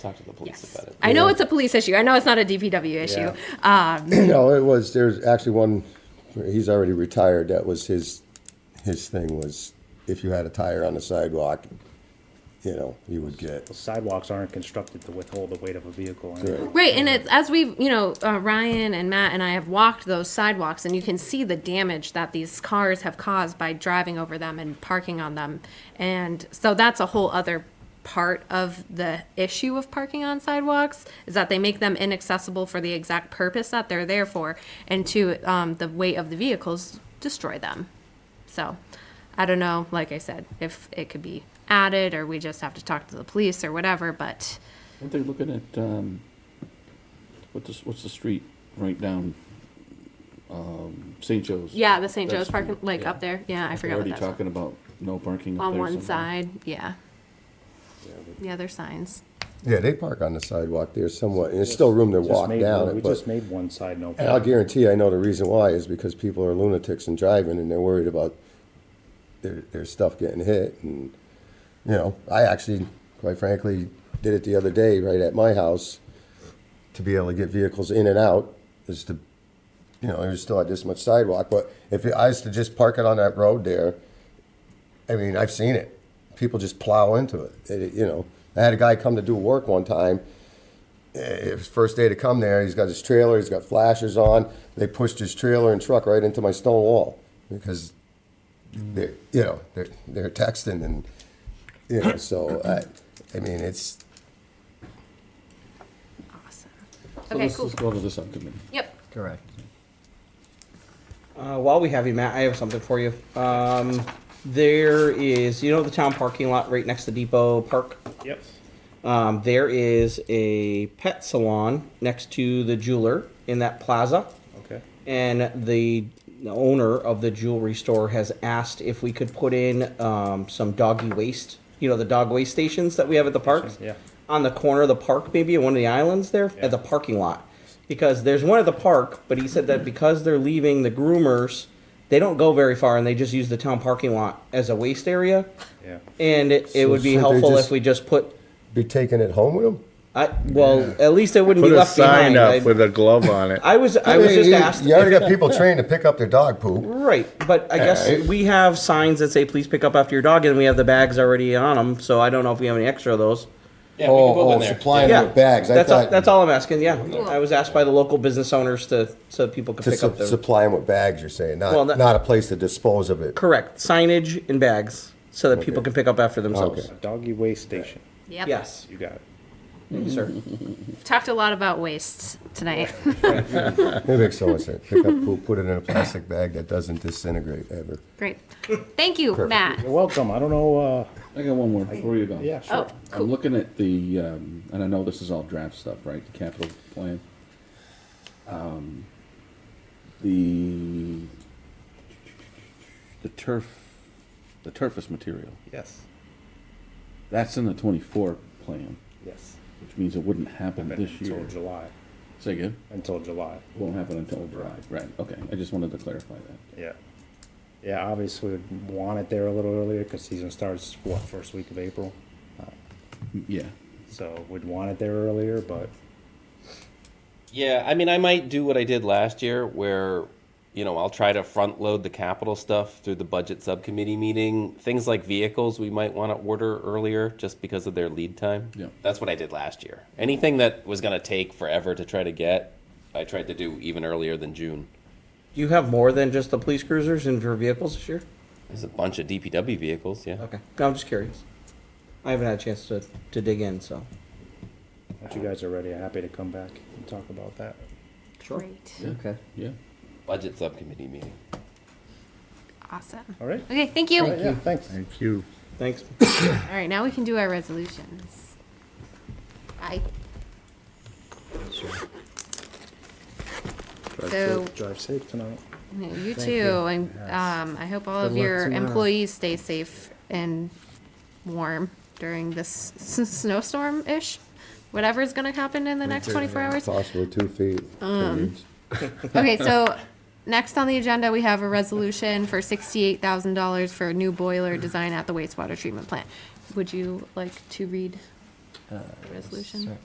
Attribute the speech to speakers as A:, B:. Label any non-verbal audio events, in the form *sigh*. A: Talk to the police
B: Yes.
A: about it.
B: I know it's a police issue. I know it's not a DPW issue. Um,
C: No, it was, there's actually one, he's already retired, that was his, his thing was if you had a tire on the sidewalk, you know, you would get,
D: Sidewalks aren't constructed to withhold the weight of a vehicle. and-
C: Right.
B: Right, and it's as we've, you know, uh, Ryan and Matt and I have walked those sidewalks, and you can see the damage that these cars have caused by driving over them and parking on them. And so that's a whole other part of the issue of parking on sidewalks is that they make them inaccessible for the exact purpose that they're there for, and two, um, the weight of the vehicles destroy them. So I don't know, like I said, if it could be added or we just have to talk to the police or whatever, but.
E: Aren't they looking at, um, what's, the- what's the street right down, um, St. Joe's?
B: Yeah, the St.
E: That
B: Joe's parking,
E: street,
B: like
E: yeah.
B: up there. Yeah, I forgot what
E: Already
B: that's called.
E: talking about no parking up
B: on
E: there
B: one
E: somewhere.
B: side. Yeah. Yeah, there's signs.
C: yeah, they park on the sidewalk there somewhat, and there's still room to
D: We just
C: walk
D: made
C: down
D: one- We
C: it,
D: just
C: but.
D: made one side no.
C: And I'll guarantee, I know the reason why is because people are lunatics and driving, and they're worried about their, their stuff getting hit, and, you know, I actually, quite frankly, did it the other day, right at my house, to be able to get vehicles in and out, is to you know, there's still had this much sidewalk, but if I was to just park it on that road there, I mean, I've seen it. People just plow into it. It- you know, I had a guy come to do work one time. Eh, It was first day to come there. He's got his trailer. He's got flashers on. They pushed his trailer and truck right into my stone wall because they're, you know, they're, they're texting and, you know, so I, I mean, it's,
B: Awesome.
E: So
B: okay,
E: let's-
B: cool.
E: Let's go to the subcommittee.
B: Yep.
F: Correct.
A: Uh, while we have you, Matt, I have something for you. Um, there is, you know, the town parking lot right next to Depot Park.
D: Yep.
A: Um, there is a pet salon next to the jeweler in that plaza.
D: Okay.
A: And the owner of the jewelry store has asked if we could put in um, some doggy waste, you know, the dog waste stations that we have at the parks.
D: Yeah.
A: On the corner of the park, maybe at one of the islands there,
D: Yeah.
A: at the parking lot. Because there's one at the park, but he said that because they're leaving the groomers, they don't go very far and they just use the town parking lot as a waste area.
D: Yeah.
A: And it, it
C: So
A: would be
C: should they
A: helpful
C: just-
A: if we just put
C: be taking it home with them.
A: I, well, at least it wouldn't
G: Put
A: be
G: a
A: left
G: sign
A: behind. I,
G: up with a glove on it.
A: I was, I was
C: mean,
A: just
C: you-
A: asked.
C: You already got people trained to pick up their dog poop.
A: Right, but I guess
C: Alright.
A: we have signs that say "Please pick up after your dog," and we have the bags already on them. So I don't know if we have any extra of those.
E: Yeah,
C: Oh, oh, supplying
A: Yeah,
C: them with bags. I
A: That's all,
C: thought
A: that's all I'm asking. Yeah, I was asked by the local business owners to so people could
C: to
A: pick
C: su-
A: up their
C: supply them with bags. You're saying not
A: Well, that-
C: not a place to dispose of it.
A: correct signage and bags so that people can pick up after themselves.
C: Okay.
D: Doggy waste station.
B: Yep.
A: Yes,
D: You got it.
A: thank you, sir.
B: Talked a lot about waste tonight.
C: That makes so much sense. Pick up poop, put it in a plastic bag that doesn't disintegrate ever.
B: *laughs* Great. Thank you, Matt.
D: You're welcome. I don't know, uh,
E: I got one more before you go.
D: yeah,
B: Oh,
D: sure.
B: cool.
E: I'm looking at the, um, and I know this is all draft stuff, right, the capital plan. Um, The, the turf, the turfus material,
D: Yes.
E: that's in the twenty-four plan,
D: Yes.
E: which means it wouldn't happen this
D: Until
E: year.
D: July,
E: Say again?
D: until July.
E: Won't happen until July, right, okay, I just wanted to clarify that.
D: Yeah. Yeah, obviously we'd want it there a little earlier because season starts, what, first week of April?
E: Yeah,
D: So we'd want it there earlier, but
H: Yeah, I mean, I might do what I did last year where, you know, I'll try to front load the capital stuff through the budget subcommittee meeting. Things like vehicles, we might want to order earlier just because of their lead time.
E: Yeah.
H: That's what I did last year. Anything that was going to take forever to try to get, I tried to do even earlier than June.
A: Do you have more than just the police cruisers and your vehicles this year?
H: There's a bunch of DPW vehicles, yeah.
A: Okay, no, I'm just curious. I haven't had a chance to to dig in, so
D: once you guys are ready, I'm happy to come back and talk about that.
B: Great.
F: Okay.
E: yeah.
H: Budget subcommittee meeting.
B: Awesome.
D: All right?
B: Okay, thank you.
D: All right, Yeah, thanks.
G: Thank you.
A: thanks.
B: All right, now we can do our resolutions. Bye. So,
D: Drive safe tonight.
B: you too, and um, I hope all of
F: Good luck
B: your
F: tomorrow.
B: employees stay safe and warm during this *laughs* s- s- snowstorm-ish, whatever's gonna happen in the next twenty-four
F: *laughs*
B: hours.
C: Possibly two feet.
B: Okay, so next on the agenda, we have a resolution for sixty-eight thousand dollars for a new boiler design at the wastewater treatment plant. Would you like to read
F: Uh,
B: resolution.